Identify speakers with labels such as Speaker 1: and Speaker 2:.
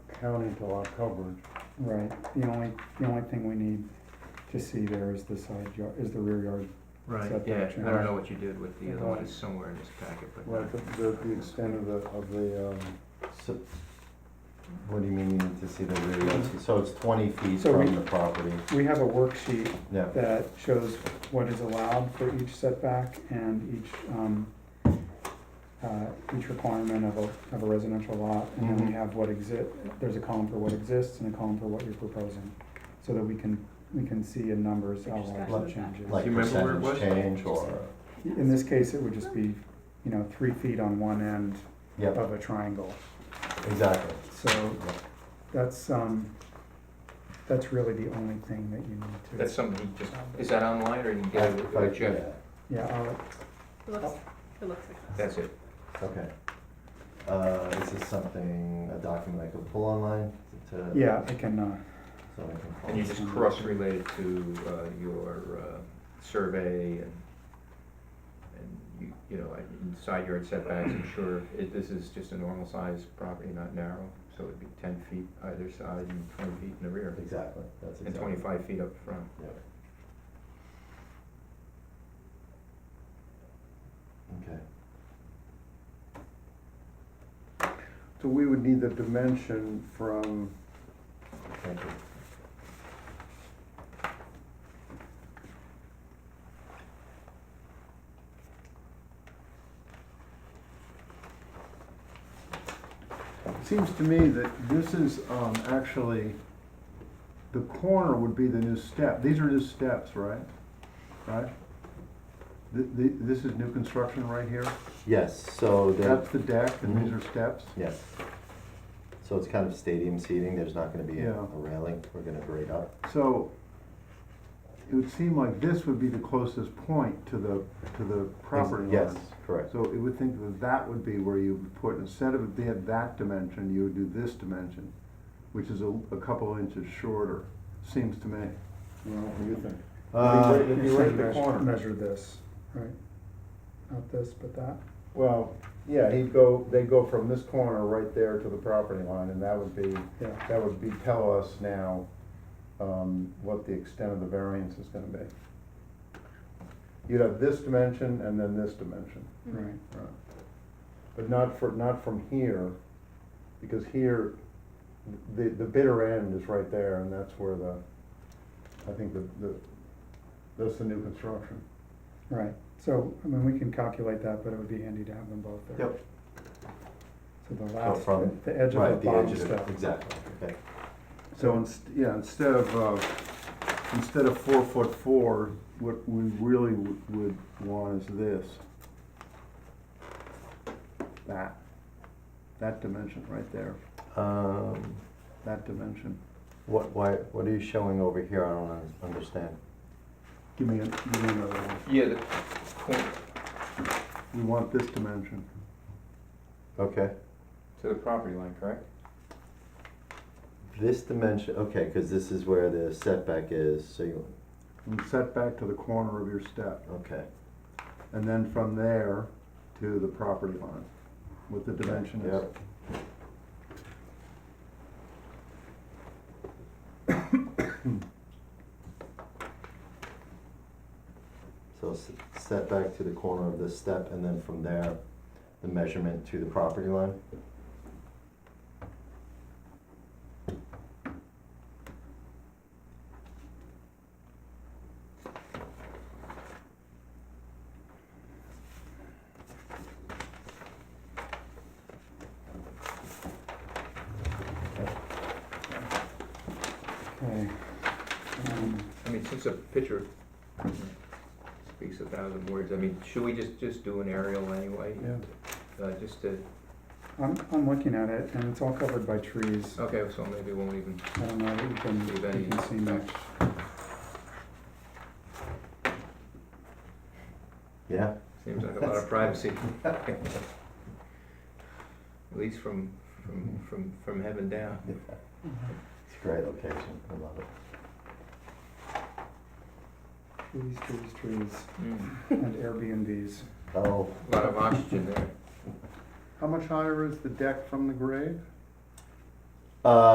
Speaker 1: counting to our coverage.
Speaker 2: Right, the only, the only thing we need to see there is the side yard, is the rear yard
Speaker 3: Right,
Speaker 2: setback
Speaker 3: yeah, I don't
Speaker 2: change.
Speaker 3: know what you did with the other one, it's somewhere in this packet, but.
Speaker 1: Right, the, the the extent of the, of the, um,
Speaker 4: So, what do you mean you need to see the rear yard? So it's twenty feet
Speaker 2: So we-
Speaker 4: from the property,
Speaker 2: We have a worksheet
Speaker 4: yeah.
Speaker 2: that shows what is allowed for each setback and each, um, uh, each requirement of a, of a residential lot. And then we
Speaker 4: Mhm.
Speaker 2: have what exist, there's a column for what exists and a column for what you're proposing, so that we can, we can see in numbers how
Speaker 5: Just
Speaker 2: large
Speaker 4: got
Speaker 2: the
Speaker 5: it.
Speaker 2: change is.
Speaker 4: Like
Speaker 3: you remember where it
Speaker 4: percentage
Speaker 3: was?
Speaker 4: change or,
Speaker 2: In this case, it would just be, you know, three feet on one end
Speaker 4: yeah,
Speaker 2: of a triangle.
Speaker 4: exactly.
Speaker 2: So
Speaker 4: Yeah.
Speaker 2: that's, um, that's really the only thing that you need to.
Speaker 3: That's something he just, is that online or you can get it
Speaker 4: I- I-
Speaker 3: with uh, Jeff?
Speaker 4: yeah,
Speaker 2: Yeah, I'll,
Speaker 5: It looks, it looks like this.
Speaker 3: That's it.
Speaker 4: Okay. Uh, is this something, a document I could pull online to?
Speaker 2: yeah, I can, uh,
Speaker 4: So I can.
Speaker 3: And you just cross-relate it to uh, your uh, survey and, and you, you know, and side yard setbacks, I'm sure it- this is just a normal size property, not narrow, so it'd be ten feet either side and twenty feet in the rear,
Speaker 4: Exactly, that's exactly.
Speaker 3: and twenty-five feet up front.
Speaker 4: Yeah. Okay.
Speaker 1: so we would need the dimension from,
Speaker 4: Thank you.
Speaker 1: it seems to me that this is, um, actually, the corner would be the new step, these are new steps, right? Right? Th th this is new construction right here,
Speaker 4: Yes, so
Speaker 1: that's
Speaker 4: there,
Speaker 1: the deck, and these are steps?
Speaker 4: yes. So it's kind of stadium seating, there's not gonna be a
Speaker 1: Yeah.
Speaker 4: a railing, we're gonna grade up.
Speaker 1: So it would seem like this would be the closest point to the, to the property line.
Speaker 4: Yes, correct.
Speaker 1: So it would think that that would be where you would put, instead of they had that dimension, you would do this dimension, which is a, a couple inches shorter, seems to me.
Speaker 2: well,
Speaker 1: do you think?
Speaker 4: Uh,
Speaker 1: It'd be
Speaker 2: you
Speaker 1: right
Speaker 2: should
Speaker 1: at the corner.
Speaker 2: measure, measure this, right? Not this, but that.
Speaker 1: Well, yeah, he'd go, they'd go from this corner right there to the property line, and that would be,
Speaker 2: Yeah.
Speaker 1: that would be, tell us now, um, what the extent of the variance is gonna be. You'd have this dimension and then this dimension,
Speaker 2: Right,
Speaker 1: but not for, not from here, because here, the, the bitter end is right there, and that's where the, I think the, the, that's the new construction.
Speaker 2: right. So, I mean, we can calculate that, but it would be handy to have them both there.
Speaker 4: Yep.
Speaker 2: So the last,
Speaker 4: from-
Speaker 2: the edge
Speaker 4: Right,
Speaker 2: of the
Speaker 4: the edge
Speaker 2: bottom
Speaker 4: of it,
Speaker 2: step.
Speaker 4: exactly, okay.
Speaker 6: So, inst- yeah, instead of, uh, instead of four foot four, what we really w- would want is this. That, that dimension right there,
Speaker 4: Um,
Speaker 6: that dimension.
Speaker 4: what, why, what are you showing over here? I don't un- understand.
Speaker 6: Give me, a- give me another one.
Speaker 3: Yeah, the corner,
Speaker 6: We want this dimension.
Speaker 4: Okay,
Speaker 3: to the property line, correct?
Speaker 4: this dimension, okay, cause this is where the setback is, so you,
Speaker 6: And set back to the corner of your step,
Speaker 4: okay.
Speaker 6: and then from there to the property line, what the dimension is.
Speaker 4: Yep. So s- setback to the corner of this step and then from there, the measurement to the property line?
Speaker 2: Okay. Um,
Speaker 3: I mean, since a picture speaks a thousand words, I mean, should we just, just do an aerial anyway?
Speaker 1: Yeah.
Speaker 3: Uh, just to,
Speaker 2: I'm, I'm looking at it and it's all covered by trees.
Speaker 3: okay, so maybe we won't even
Speaker 2: I don't know that you can,
Speaker 3: Leave
Speaker 2: you
Speaker 3: any
Speaker 2: can see much.
Speaker 4: Yeah?
Speaker 3: Seems like a lot of privacy. At least from, from, from, from heaven down.
Speaker 4: It's a great location, I love it.
Speaker 2: Trees, trees, trees,
Speaker 3: Mm,
Speaker 2: and Airbnbs.
Speaker 4: Oh,
Speaker 3: A lot of oxygen there.
Speaker 1: How much higher is the deck from the grade?
Speaker 4: uh,